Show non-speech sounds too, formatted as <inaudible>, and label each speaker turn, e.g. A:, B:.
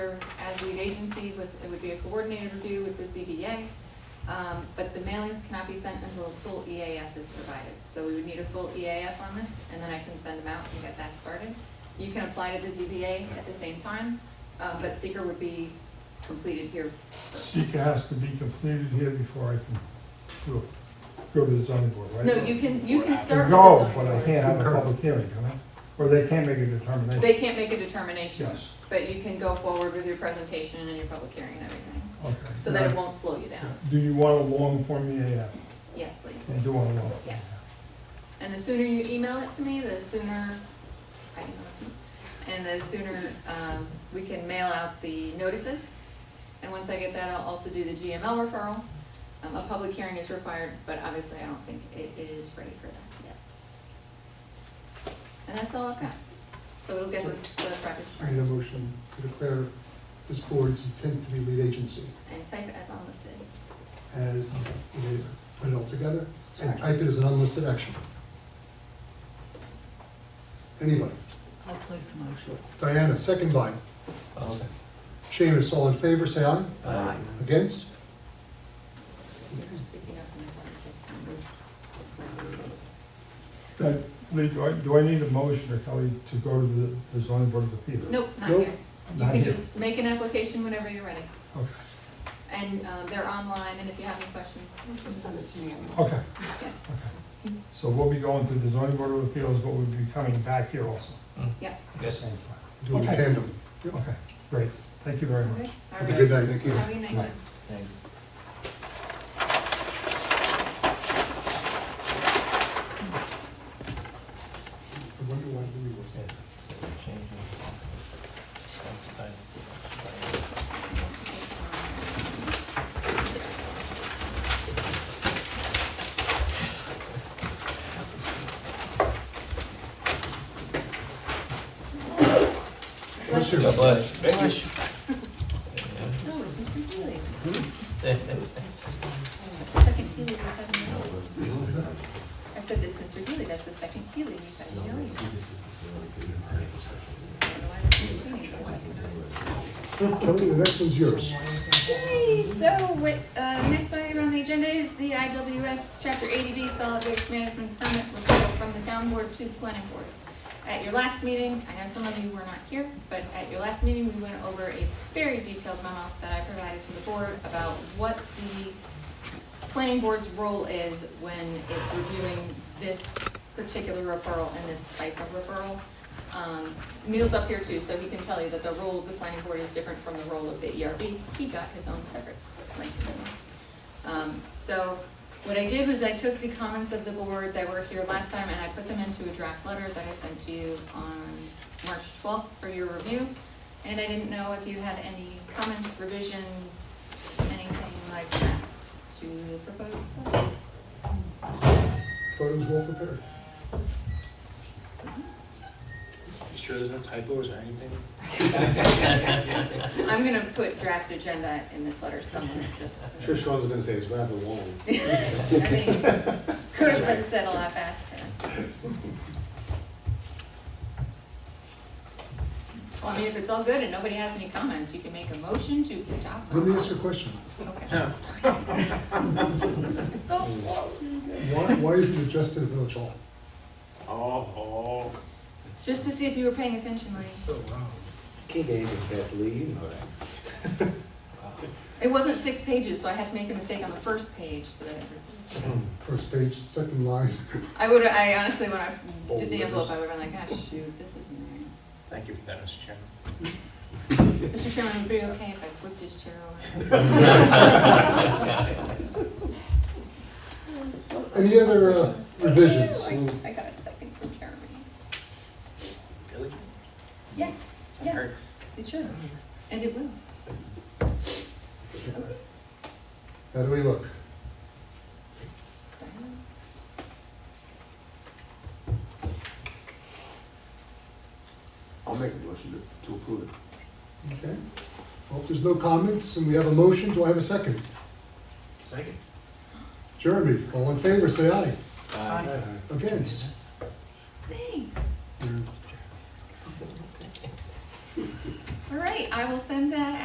A: as lead agency with, it would be a coordinated review with the ZBA. Um, but the mailings cannot be sent until a full EAF is provided. So we would need a full EAF on this, and then I can send them out and get that started. You can apply to the ZBA at the same time, uh, but seeker would be completed here. first.
B: Seeker has to be completed here before I can do it, go to the zoning board, right?
A: No, you can, you can
B: I
A: start with
B: can go,
A: the
B: but I
A: zoning board.
B: can't have a public hearing, can I? Or they can't make a determination.
A: They can't make a determination,
B: Yes,
A: but you can go forward with your presentation and your public hearing and everything,
B: okay.
A: so that it won't slow you down.
B: Do you want a long form EAF?
A: Yes,
B: I
A: please.
B: do want a long. form
A: Yeah.
B: EAF.
A: And the sooner you email it to me, the sooner, I email it to me, and the sooner, um, we can mail out the notices. And once I get that, I'll also do the GML referral. Um, a public hearing is required, but obviously I don't think it is ready for that yet. And that's all I've got. So it'll get this, the project
C: I need a
A: started
C: motion to declare this board's intent to be lead agency
A: and type it as unlisted.
C: as, we put it all together, and type it as an unlisted action. Anybody?
D: I'll place a motion.
C: Diana, second by. Seamus, all in favor, say aye.
D: Aye.
C: Against?
A: Speaking of my partnership.
B: Then, Lee, do I, do I need a motion, or Kelly, to go to the, the zoning board of appeals?
A: Nope, not
C: Nope.
A: here. You
B: Not
A: can
B: here.
A: just make an application whenever you're ready.
B: Okay,
A: And um, they're online, and if you have any questions.
D: Just send it to me.
B: okay,
A: Yeah,
B: okay. So we'll be going to the zoning board of appeals, but we'll be coming back here also.
A: yeah.
B: at the Same time.
C: Do it in
B: Okay.
C: tandem.
B: Okay, great, thank you very much.
A: All
C: Have a
A: right.
C: good night. Thank
A: Have a good night, Jim.
E: Thanks.
C: I wonder why Louis was
E: Yeah, so we're changing the next time.
C: Bless you.
E: God bless.
A: Oh, it's Mr. Healy.
D: This was on
A: Second Healy we've had in the list. I said it's Mr. Healy, that's the second Healy we've had in the list. I don't know why that's Mr. Healy, but-
C: Kelly, the next one's yours.
A: Yay, so what, uh, next item on the agenda is the IWS Chapter 80B Solid Waste Management Permit referral from the town board to the planning board. At your last meeting, I know some of you were not here, but at your last meeting, we went over a very detailed memo that I provided to the board about what the planning board's role is when it's reviewing this particular referral and this type of referral. Um, Neil's up here too, so he can tell you that the role of the planning board is different from the role of the ERB. He got his own separate link. Um, so what I did was I took the comments of the board that were here last time and I put them into a draft letter that I sent to you on March twelfth for your review. And I didn't know if you had any comments, revisions, anything like that to the proposed letter.
C: Thought it was well prepared.
F: You sure there's no typos or anything?
A: I'm gonna put draft agenda in this letter somewhere, just.
F: Sure Sean's gonna say it's rather long.
A: <laughs> I mean, could have been said a lot faster. Well, I mean, if it's all good and nobody has any comments, you can make a motion to adopt. the
C: Let me ask you a question.
A: Okay. <laughs> So close.
C: Why, why is it addressed to the village hall?
F: Oh, oh.
A: Just to see if you were paying attention, like,
C: So loud.
F: Can't get anything past Lee, you know that.
A: it wasn't six pages, so I had to make a mistake on the first page, so that.
C: First page, second line. <laughs>
A: I would, I honestly, when I did the envelope, I would have been like, gosh, shoot, this isn't there.
F: Thank you for that, Mr. Chairman.
A: Mr. Chairman, would it be okay if I flipped his chair over?
C: Any other uh, revisions?
A: I I got a second from Jeremy.
F: Really?
A: Yeah, yeah,
F: Eric?
A: it should, and it will.
C: How do we look?
A: Style.
G: I'll make a motion to- to approve it.
C: Okay. Well, if there's no comments and we have a motion, do I have a second?
F: Second.
C: Jeremy, all in favor, say aye.
E: Aye.
C: Against?
A: Thanks.
C: You're-
D: something like that.
A: All right, I will send that